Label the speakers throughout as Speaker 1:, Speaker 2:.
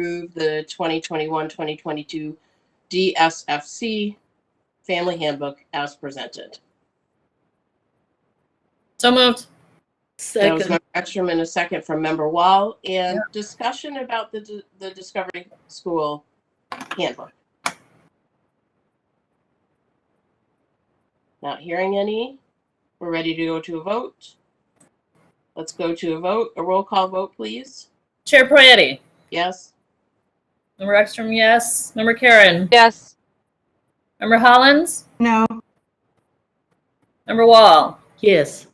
Speaker 1: approve the 2021-2022 DSFC Family Handbook as presented.
Speaker 2: So moved.
Speaker 1: That was
Speaker 3: Second,
Speaker 1: Member Extrem and a second from Member Wall. And discussion about the, d- the Discovery School handbook. Not hearing any. We're ready to go to a vote. Let's go to a vote. A roll call vote, please.
Speaker 2: Chair Prayati.
Speaker 1: Yes?
Speaker 2: Member Ekstrom, yes. Member Karen.
Speaker 4: Yes.
Speaker 2: Member Hollins.
Speaker 5: No.
Speaker 2: Member Wall.
Speaker 3: yes.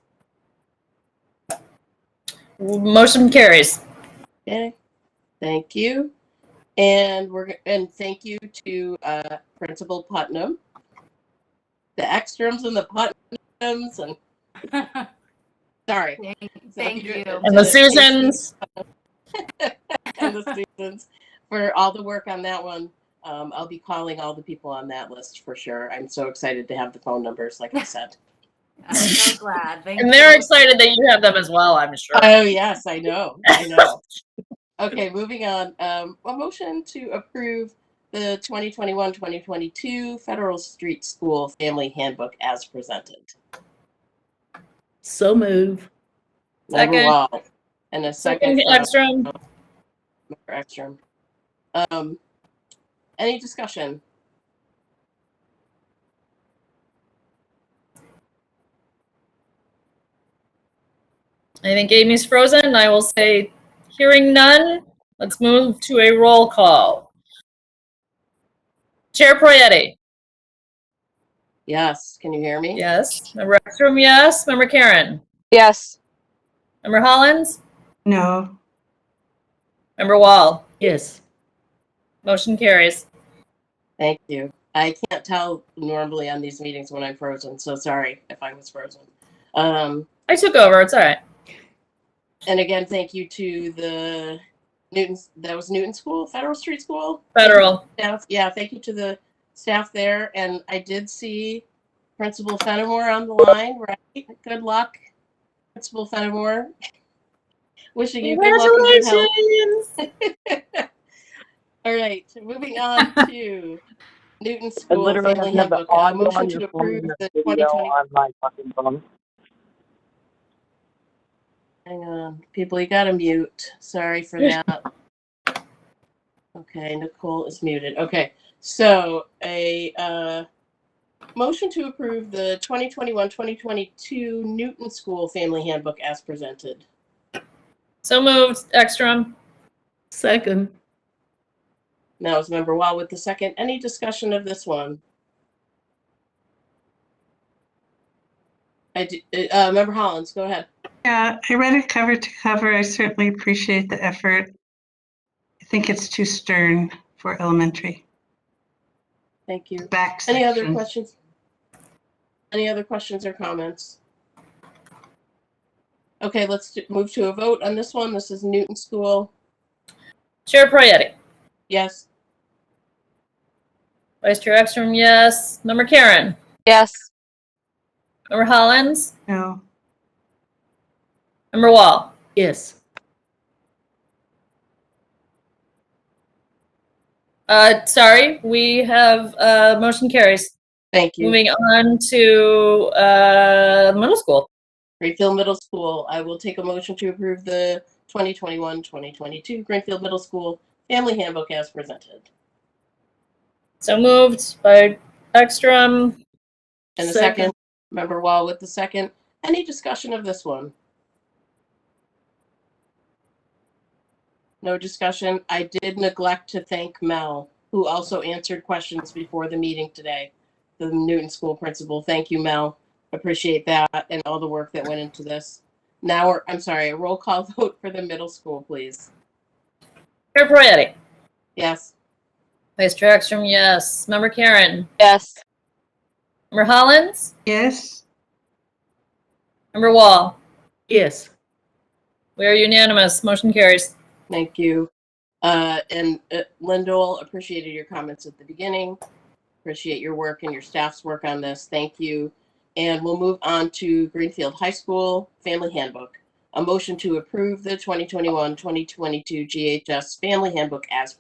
Speaker 2: Motion carries.
Speaker 1: Okay, thank you. And we're, and thank you to uh, Principal Putnam. The Extrams and the Putnams and, sorry.
Speaker 4: Thank you.
Speaker 2: And the Susans.
Speaker 1: And the Susans for all the work on that one. Um, I'll be calling all the people on that list for sure. I'm so excited to have the phone numbers, like I said.
Speaker 4: I'm so glad. Thank
Speaker 2: And they're
Speaker 4: you.
Speaker 2: excited that you have them as well, I'm sure.
Speaker 1: Oh, yes, I know, I know. Okay, moving on. Um, a motion to approve the 2021, 2022 Federal Street School Family Handbook as presented.
Speaker 3: So move.
Speaker 1: Member
Speaker 2: Second.
Speaker 1: Wall. And a second
Speaker 2: Second
Speaker 1: from
Speaker 2: Ekstrom.
Speaker 1: Member Ekstrom. Um, any discussion?
Speaker 2: I think Amy's frozen. I will say, hearing none, let's move to a roll call. Chair Prayati.
Speaker 1: Yes, can you hear me?
Speaker 2: Yes. Member Ekstrom, yes. Member Karen.
Speaker 4: Yes.
Speaker 2: Member Hollins.
Speaker 5: No.
Speaker 2: Member Wall.
Speaker 3: Yes.
Speaker 2: Motion carries.
Speaker 1: Thank you. I can't tell normally on these meetings when I'm frozen, so sorry if I was frozen. Um,
Speaker 2: I took over. It's all right.
Speaker 1: And again, thank you to the Newton, that was Newton School, Federal Street School?
Speaker 2: Federal.
Speaker 1: Staff, yeah, thank you to the staff there. And I did see Principal Fenimore on the line, right? Good luck, Principal Fenimore. Wishing you good luck. and good health.
Speaker 2: Congratulations.
Speaker 1: All right, moving on to Newton
Speaker 6: I
Speaker 1: School.
Speaker 6: literally
Speaker 1: Family
Speaker 6: have the
Speaker 1: Handbook. A
Speaker 6: audio on
Speaker 1: Motion
Speaker 6: your
Speaker 1: to
Speaker 6: phone
Speaker 1: approve
Speaker 6: and the
Speaker 1: the
Speaker 6: video
Speaker 1: 2020.
Speaker 6: on my fucking phone.
Speaker 1: Hang on, people, you gotta mute. Sorry for that. Okay, Nicole is muted. Okay, so a uh, motion to approve the 2021-2022 Newton School Family Handbook as presented.
Speaker 2: So moved, Ekstrom.
Speaker 3: Second,
Speaker 1: Now is Member Wall with the second. Any discussion of this one? I do, uh, Member Hollins, go ahead.
Speaker 5: Yeah, I read it cover to cover. I certainly appreciate the effort. I think it's too stern for elementary.
Speaker 1: Thank you.
Speaker 5: Back
Speaker 1: Any other
Speaker 5: section.
Speaker 1: questions? Any other questions or comments? Okay, let's do- move to a vote on this one. This is Newton School.
Speaker 2: Chair Prayati.
Speaker 1: Yes,
Speaker 2: Vice Chair Ekstrom, yes. Member Karen.
Speaker 4: Yes.
Speaker 2: Member Hollins.
Speaker 5: No.
Speaker 2: Member Wall.
Speaker 3: yes.
Speaker 2: Uh, sorry, we have uh, motion carries.
Speaker 1: thank you.
Speaker 2: Moving on to uh, middle school.
Speaker 1: Greenfield Middle School, I will take a motion to approve the 2021-2022 Greenfield Middle School Family Handbook as presented.
Speaker 2: So moved by Ekstrom.
Speaker 1: And the
Speaker 3: Second.
Speaker 1: second, member Wall with the second. Any discussion of this one? No discussion. I did neglect to thank Mel, who also answered questions before the meeting today. The Newton School Principal. Thank you, Mel. Appreciate that and all the work that went into this. Now, we're I'm sorry, a roll call vote for the middle school, please.
Speaker 2: Chair Prayati.
Speaker 1: Yes.
Speaker 2: Vice Chair Ekstrom, yes. Member Karen.
Speaker 4: Yes.
Speaker 2: Member Hollins.
Speaker 5: Yes?
Speaker 2: Member Wall.
Speaker 3: Yes.
Speaker 2: We are unanimous. Motion carries.
Speaker 1: Thank you. Uh, and uh, Lindell, appreciated your comments at the beginning. Appreciate your work and your staff's work on this. Thank you. And we'll move on to Greenfield High School Family Handbook. A motion to approve the 2021-2022 GHS Family Handbook as